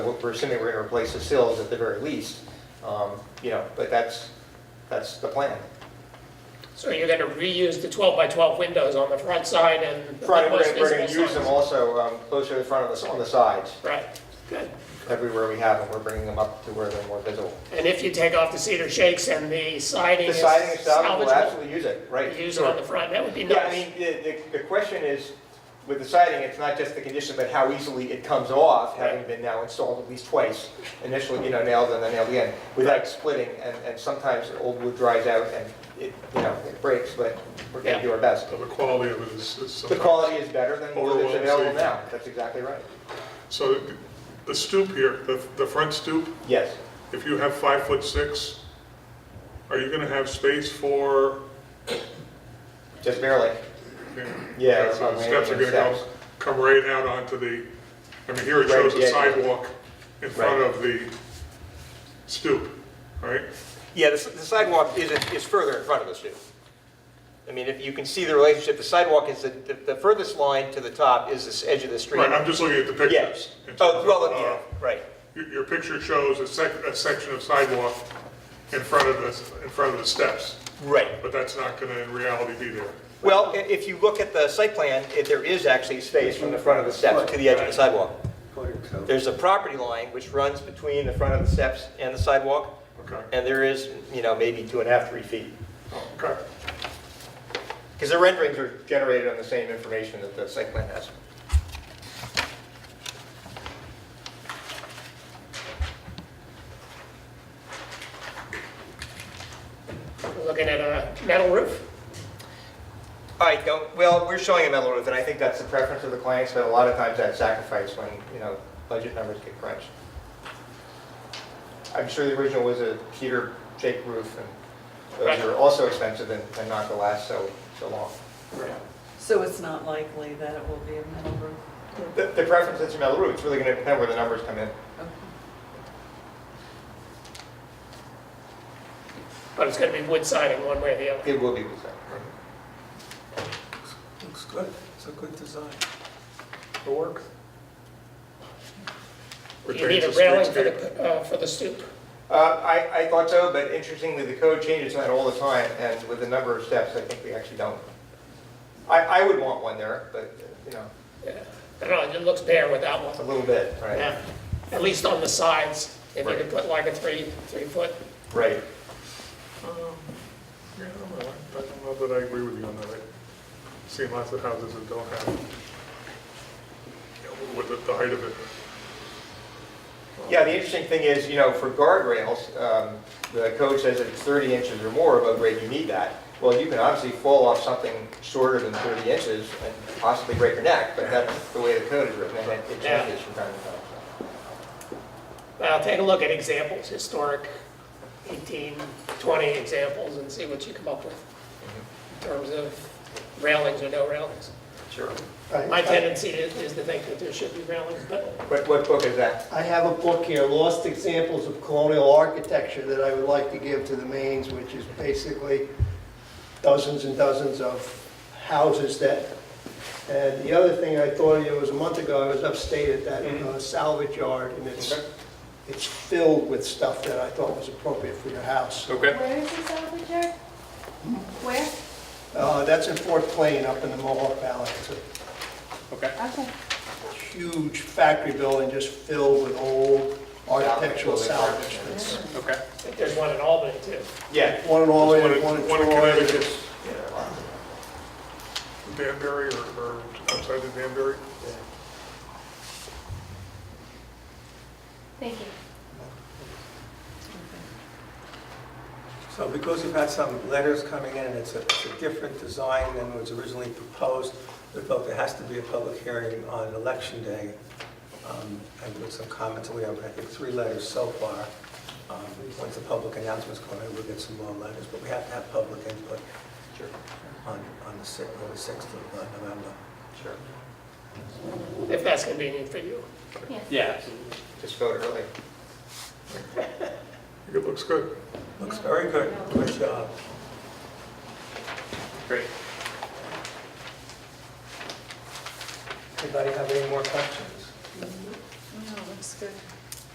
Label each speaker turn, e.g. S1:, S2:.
S1: We're we're assuming we're gonna replace the sills at the very least, um, you know, but that's, that's the plan.
S2: So you're gonna reuse the twelve by twelve windows on the front side and. the
S1: Front, we're
S2: most
S1: gonna, we're gonna
S2: visible
S1: use them
S2: sides.
S1: also um, closer to the front of us, on the sides,
S2: Right, good.
S1: everywhere we have them, we're bringing them up to where they're more visible.
S2: And if you take off the cedar shakes and the siding
S1: The
S2: is
S1: siding is solid, we'll
S2: salvageable,
S1: absolutely use it, right?
S2: use it
S1: sure.
S2: on the front, that would be
S1: Yeah, I
S2: nice.
S1: mean, the, the, the question is, with the siding, it's not just the condition, but how easily it comes off, having
S2: Right.
S1: been now installed at least twice. Initially, you know, nailed and then nailed again, without splitting, and, and sometimes the old wood dries out and it, you know, it breaks, but we're gonna
S2: Yeah.
S1: do our best.
S3: So the quality of it is, is
S1: The quality is better than what is
S3: Overwhelming
S1: available
S3: safety.
S1: now, that's exactly right.
S3: So the- the stoop here, the, the front stoop,
S1: Yes,
S3: if you have five foot six, are you gonna have space for?
S1: just barely.
S3: you know,
S1: Yeah,
S3: okay, So
S1: about
S3: the steps are
S1: landing
S3: gonna
S1: and
S3: go,
S1: steps.
S3: come right out onto the, I mean, here it
S1: Right,
S3: shows the
S1: yeah.
S3: sidewalk in front
S1: Right.
S3: of the stoop, right?
S1: Yeah, the the sidewalk is, is further in front of us, too. I mean, if you can see the relationship, the sidewalk is, the- the the furthest line to the top is this edge of the street.
S3: Right, I'm just looking at the pictures.
S1: Yes.
S3: in terms
S1: Oh,
S3: of,
S1: well,
S3: uh,
S1: yeah, right.
S3: Your, your picture shows a sec, a section of sidewalk in front of the, in front of the steps,
S1: Right.
S3: but that's not gonna in reality be there.
S1: Well, i- if you look at the site plan, it- there is actually space from the front of the steps to the edge of the sidewalk. There's a property line which runs between the front of the steps and the sidewalk,
S3: Okay. Um,
S1: and there is, you know, maybe two and a half, three feet.
S3: Okay,
S1: Because the renderings are generated on the same information that the site plan has.
S2: We're Looking at a metal roof,
S1: All right, no, well, we're showing a metal roof, and I think that's the preference of the clients, but a lot of times that's sacrificed when, you know, budget numbers get crunched. I'm sure the original was a cedar shake roof, and those
S2: Right.
S1: are also expensive and and not to last so, so long.
S4: So it's not likely that it will be a metal roof?
S1: The, the preference is a metal roof, it's really gonna depend where the numbers come in.
S4: Okay.
S2: but it's gonna be wood siding one way or the other.
S1: It will be the same.
S5: Looks good, it's a good design.
S3: it'll work.
S2: You need a
S3: Retains the
S2: railing for
S3: streetscape.
S2: the, uh, for the stoop.
S1: Uh, I, I thought so, but interestingly, the code changes that all the time, and with the number of steps, I think we actually don't. I, I would want one there, but, you know,
S2: Yeah. I don't know, it looks bare without
S1: a
S2: one,
S1: little bit, right?
S2: yeah, at least on the sides, if you could put like a three, three foot.
S1: Right.
S3: Yeah, I don't know. I don't know that I agree with you on that. I've seen lots of houses that don't have, you know, with the- the height of it.
S1: Yeah, the interesting thing is, you know, for guardrails, um, the code says that it's 30 inches or more above grade, you need that. Well, you can obviously fall off something shorter than 30 inches and possibly break your neck, but that's the way the code is written, and it it
S2: Yeah.
S1: changes from time to time. so.
S2: Well, take a look at examples, historic 18, 20 examples, and see what you come up with in terms of railings or no railings.
S1: Sure.
S2: My
S6: I
S2: tendency is is to think that there should be railings, but
S1: What, what book is that?
S6: I have a book here, Lost Examples of Colonial Architecture, that I would like to give to the Mains, which is basically dozens and dozens of houses that, and the other thing I thought of you was a month ago, I was upstate at that uh, salvage yard, and it's,
S1: Okay.
S6: it's filled with stuff that I thought was appropriate for your house.
S1: Okay.
S7: Where is this salvage yard? Where?
S6: Uh, That's in Fort Plain, up in the Mohawk Valley. It's a
S7: Okay.
S6: huge factory building just filled with old architectural salvage. It's
S2: I think there's one in Albany too.
S1: Yeah.
S6: One in all,
S3: One in-
S6: one in
S3: one in
S6: Troy.
S3: Connecticut. Danbury or, or outside of Danbury?
S7: Thank you.
S5: So because you've had some letters coming in, and it's a, it's a different design than was originally proposed, we felt there has to be a public hearing on election day, um, and with some comments, and we have, I think, three letters so far. Um, Once the public announcement's going, we'll get some more letters, but we have to have public input
S1: Sure,
S5: on, on the sixth, on the sixth of uh, November.
S1: sure.
S2: if that's convenient for you.
S7: Yes.
S8: Yeah,
S1: Just vote early.
S3: I think It looks good.
S5: Looks very good, good job.
S1: Great.
S5: Anybody have any more questions?
S4: No, looks good.